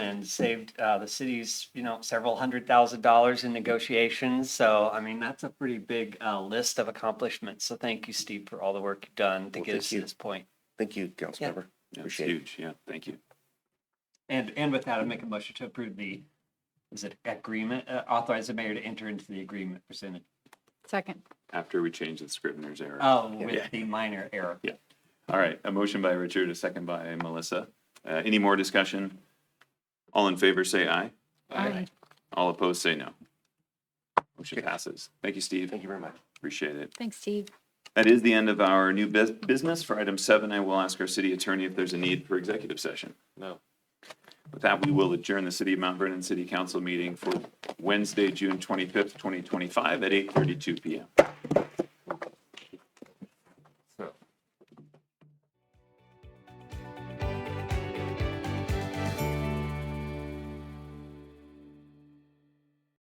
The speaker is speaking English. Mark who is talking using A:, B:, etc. A: and saved uh, the city's, you know, several hundred thousand dollars in negotiations. So, I mean, that's a pretty big uh, list of accomplishments. So thank you, Steve, for all the work you've done to
B: Well,
A: get
B: thank
A: us to
B: you.
A: this point.
B: Thank you,
A: Yeah.
B: Councilmember.
C: That's
B: Appreciate it.
C: huge. Yeah, thank you.
A: And, and with that, I make a motion to approve the, is it agreement, Uh, authorize the mayor to enter into the agreement presented.
D: Second.
C: After we change the Scrivener's error.
A: Oh,
C: Yeah.
A: with the minor error.
C: All right, a motion by Richard, a second by Melissa. Uh, any more discussion? All in favor, say aye.
D: Aye.
C: All opposed, say no. Motion passes. Thank you, Steve.
B: Thank you very much.
C: Appreciate it.
D: Thanks, Steve.
C: That is the end of our new bus- business. For item seven, I will ask our city attorney if there's a need for executive session.
B: No.
C: With that, we will adjourn the City of Mount Vernon City Council meeting for Wednesday, June twenty-fifth, twenty twenty-five at eight thirty-two PM.